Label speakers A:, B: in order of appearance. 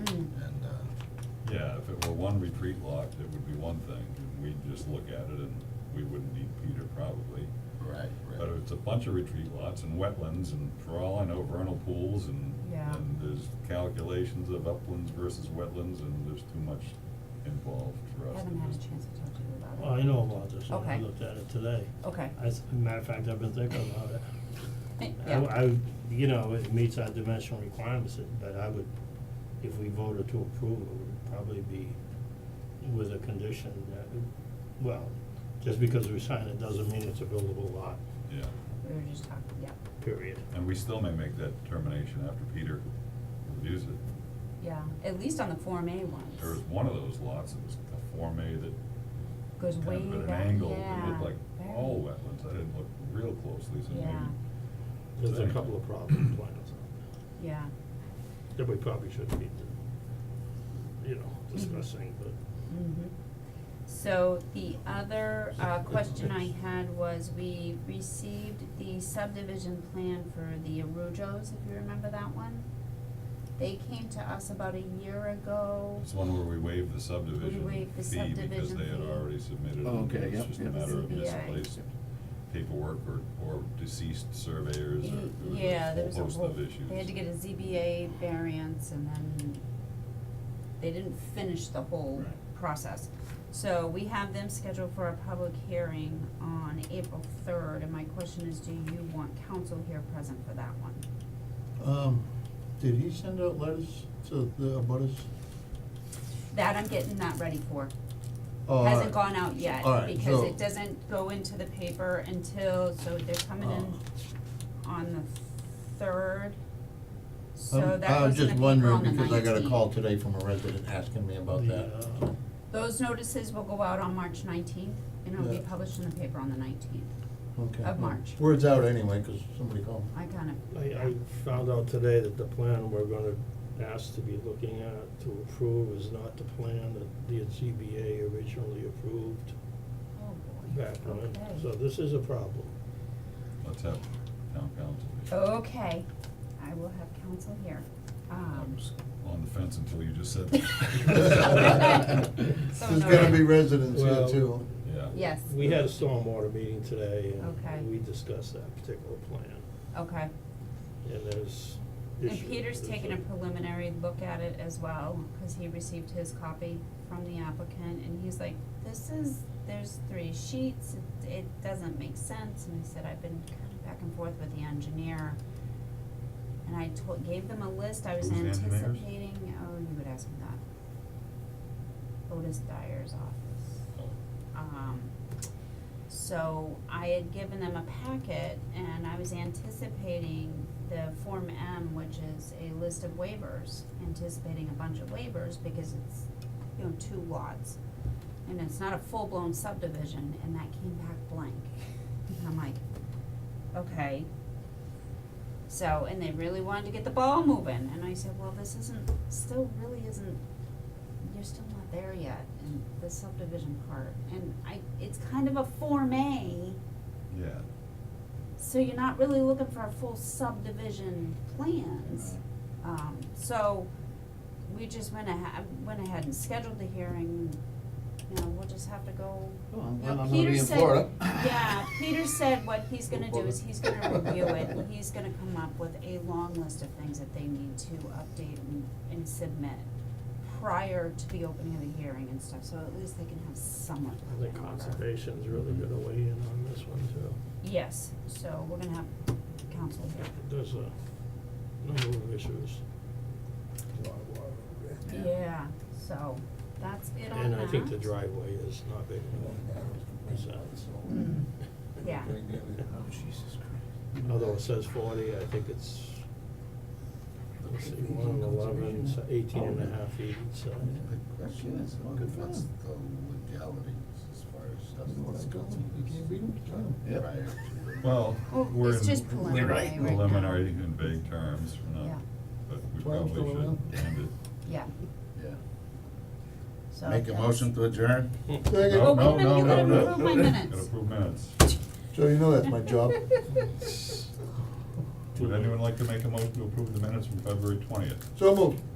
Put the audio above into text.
A: Mm.
B: uh,
C: uh,
B: one retreat lot, it would be one thing, and we'd just look at it and we wouldn't need Peter probably.
C: Right,
B: But
C: right.
B: it's a bunch of retreat lots and wetlands and for all I know vernal pools and,
A: Yeah.
B: and there's calculations of uplands versus wetlands and there's too much involved for us to
A: Haven't had a
B: just-
A: chance to talk to you about it.
D: Well, I know about this, and I
A: Okay.
D: looked at it today.
A: Okay.
D: As, a matter of fact, I've been thinking about it. I-
A: Yeah.
D: I, you know, it meets our dimensional requirements, it- but I would, if we voted to approve, it would probably be with a condition that, well, just because we sign it doesn't mean it's a buildable lot,
B: Yeah,
A: We were just talking, yeah,
D: period.
B: and we still may make that determination after Peter reviews it.
A: yeah, at least on the Form A ones.
B: There was one of those lots, that was a Form A that
A: Goes
B: kind
A: way
B: of at an
A: back,
B: angle,
A: yeah.
B: it looked like oh,
A: Very.
B: all wetlands, I didn't look real closely, so maybe.
A: Yeah.
E: There's a couple of problem plans
A: Yeah,
E: that we probably shouldn't be, you know, discussing, but
A: mhm. So the other, uh, question I had was, we received the subdivision plan for the Arujos, if you remember that one? They came to us about a year ago.
B: It's one where we waived the subdivision
A: waived the
B: fee because
A: subdivision
B: they had
A: fee.
B: already submitted it,
C: Oh,
B: and
C: okay,
B: it's
C: yep,
B: just a
C: yep.
B: matter of
A: ZBA.
B: misplaced paperwork or, or deceased surveyors or,
A: Y-
B: there was
A: Yeah, there was a
B: a whole
A: whole,
B: host of issues.
A: they had to get a ZBA variance and then they didn't finish the whole
C: Right.
A: process. So we have them scheduled for a public hearing on April third, and my question is, do you want council here present for that one?
F: Um, did he send out letters to the abutters?
A: That I'm getting that ready for.
F: Oh,
A: Hasn't
F: alright.
A: gone out yet,
F: All right,
A: because
F: so-
A: it doesn't go into the paper until, so they're coming in
F: Oh.
A: on the third. So
F: I'm-
A: that
F: I was
A: was in the
F: just
A: paper on the
F: wondering, because I got a
A: 19th.
F: call today from a resident asking me about
D: The,
F: that.
D: uh,
A: Those notices will go out on March nineteenth, and it'll be
F: Yeah.
A: published in the paper on the nineteenth.
D: uh,
F: Okay.
A: of March.
F: Word's out anyway, because somebody called.
A: I kind of,
D: I, I found out today that the plan we're gonna ask to be looking at to approve is not the plan that the ZBA originally approved
A: oh boy.
D: back when.
A: Okay.
D: So this is a problem.
B: Let's have town council.
A: Oh,
B: here.
A: Okay, I will have counsel here.
B: I'm
A: Um,
B: s- on the fence until you just said that.
A: So
F: There's
A: no.
F: gonna be residents here
D: Well-
F: too.
B: Yeah.
A: yes,
D: uh, We had a stormwater meeting today
A: Okay.
D: and we discussed that particular plan
A: okay.
D: and there's
A: And
D: issues.
A: Peter's
D: There's
A: taken a preliminary look at it as well, cause he received his copy from the applicant, and he's like, this is, there's three sheets, it, it doesn't make sense, and I said, I've been kind of back and forth with the engineer. And I told, gave them a list, I was
B: Who's the engineers?
A: anticipating, oh, you would ask me that. Otis Dyer's office.
B: Oh,
A: Um, so I had given them a packet and I was anticipating the Form M, which is a list of waivers, anticipating a bunch of waivers because it's, you know, two lots. And it's not a full-blown subdivision and that came back blank. And I'm like, okay. So, and they really wanted to get the ball moving and I said, well, this isn't, still really isn't you're still not there yet in the subdivision part, and I, it's kind of a Form A,
B: Yeah,
A: so you're not really looking for a full subdivision plans. Um, so, we just went ahead, went ahead and scheduled the hearing, you know, we'll just have to go.
F: Well,
A: You know,
F: I'm glad I'm gonna
A: Peter
F: be in
A: said-
F: Florida.
A: Yeah, Peter said what he's gonna do is he's gonna review it, and
F: Florida.
A: he's gonna come up with a long list of things that they need to update and, and submit prior to the opening of the hearing and stuff, so at least they can have somewhat
D: I
A: of
D: think
A: an order.
D: conservation's really gonna weigh in on this one too.
A: Yes, so we're gonna have council here.
D: There's a number of issues.
A: Yeah, so that's it on
D: And
A: that.
D: I think the driveway is not big enough. So,
A: Mm, yeah.
F: Oh,
C: Jesus Christ.
D: Although it says forty, I think it's, let's see, one and eleven, so eighteen and a half feet each side.
C: The question is,
F: Look at
C: what's
F: that.
C: the legality as far as stuff that's
F: Go.
C: going to
F: You
C: be
F: can't read 'em?
C: done
F: Yep.
C: prior to-
B: well,
A: Well,
B: we're
A: it's
B: in
A: just preliminary
B: we're
A: right
B: in
A: now.
B: preliminary in vague terms, we're
A: Yeah.
B: not, but we
F: Twelve's
B: probably
F: still around?
B: should end
A: Yeah,
C: Yeah.
A: so.
C: Make a
A: that's-
C: motion to adjourn?
B: it.
F: Second.
A: Oh,
B: No,
A: wait a minute,
B: no,
A: you
B: no,
A: gotta
B: no.
A: approve my
B: Gotta
A: minutes.
B: approve minutes.
F: So you know that's my job.
B: Would anyone like to make a motion to approve the minutes from February twentieth?
F: So moved.